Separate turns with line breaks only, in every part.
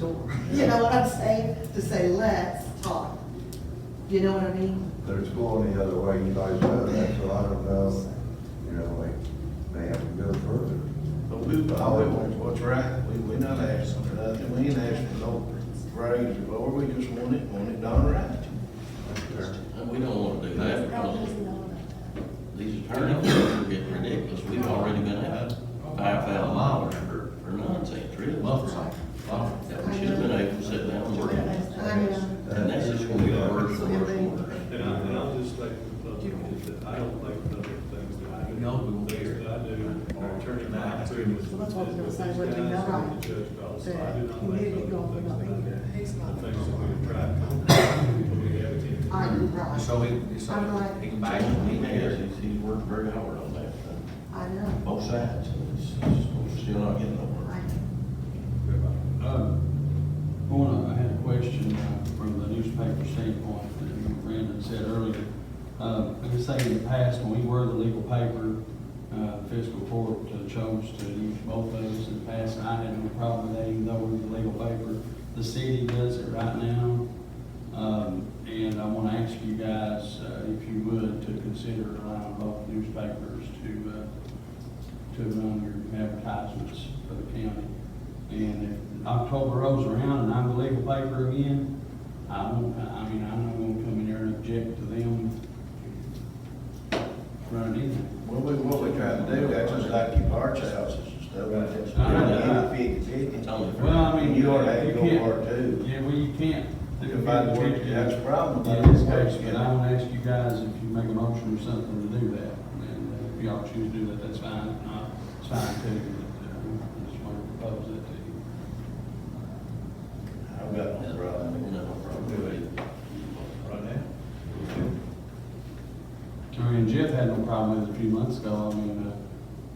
door. You know what I'm saying? To say, let's talk. You know what I mean?
There's going the other way, you guys know that, so I don't know, you know, we may have to go further.
But we, all we want is what's right, we, we not asking for nothing, we ain't asking for no raise or lower, we just want it, want it done right.
And Uh, we don't want to do that because these attorneys are getting ridiculous. We've already been out five thousand dollars for, for nonsense, really. Buffer, buffer. That we should have been able to sit down and work. And
I know.
that's just going to be the worst, the worst one.
And I, and I'll just like, look, is that I don't like other things that I do.
No, we won't
Things
hear it.
that I do, our attorney
Nah,
Mike
that's
Booth
good.
was-
Well, that's what I was gonna say,
was
we're doing that
down
right.
to the judge about, so I do not
He
like
didn't
other
go for
things
nothing
that I do.
either. He's
The things that we drive, we have it.
Are you right?
So he, so
I'm like,
he can buy
Back when he has,
it.
he's, he's worked very hard on that, uh,
I know.
both sides. It's- it's- We're still not getting
I
nowhere.
Um, Going on, I had a question uh, from the newspaper standpoint that Brandon said earlier. Uh, I can say in the past, when we were the legal paper, uh, fiscal court uh, chose to use both of those in the past. and I had no problem with that, even though we were the legal paper. The city does it right now. Um, And I want to ask you guys, uh, if you would, to consider allowing both newspapers to uh, to run your advertisements for the county. And if October rolls around and I'm the legal paper again, I won't, I I mean, I'm not gonna come in there and object to them running anything.
What we, what we trying to do, that's just like your parts houses and stuff, like that.
Right.
It's fifty, fifty.
It's only fair.
Well, I mean,
You ought to have to
you
go
can't-
hard too.
Yeah, well, you can't.
If I were to- that's a problem.
Yeah, that's correct, but I want to ask you guys if you make a motion or something to do that, and uh, if y'all choose to do that, that's fine, If not, it's fine too, but, uh, I just want to propose that to you.
I've got no problem.
You know, probably.
Right now.
I mean, Jeff had no problem with it a few months ago, I mean,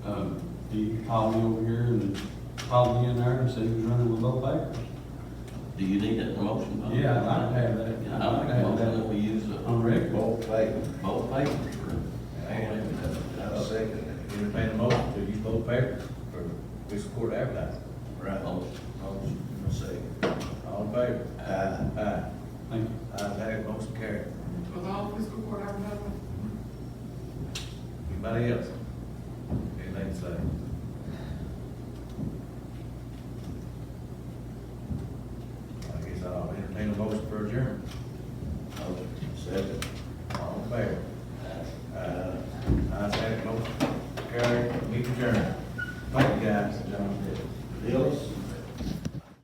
uh, um, he called me over here and called me in there and said he was running with low papers.
Do you need that motion? Bob?
Yeah, I'd like to have that.
Yeah, I make a motion that we use the
On record.
Both papers.
both papers for.
And-
I'll second
Entertain a motion to use both papers for fiscal court advertising.
it. Right. Motion, I'll second.
All in favor?
Aye.
Aye.
Thank you.
Ayes have, it, motion carried.
Was all fiscal court advertising?
Anybody else? Anything to say? I guess I'll entertain a motion for adjournment.
Motion, second.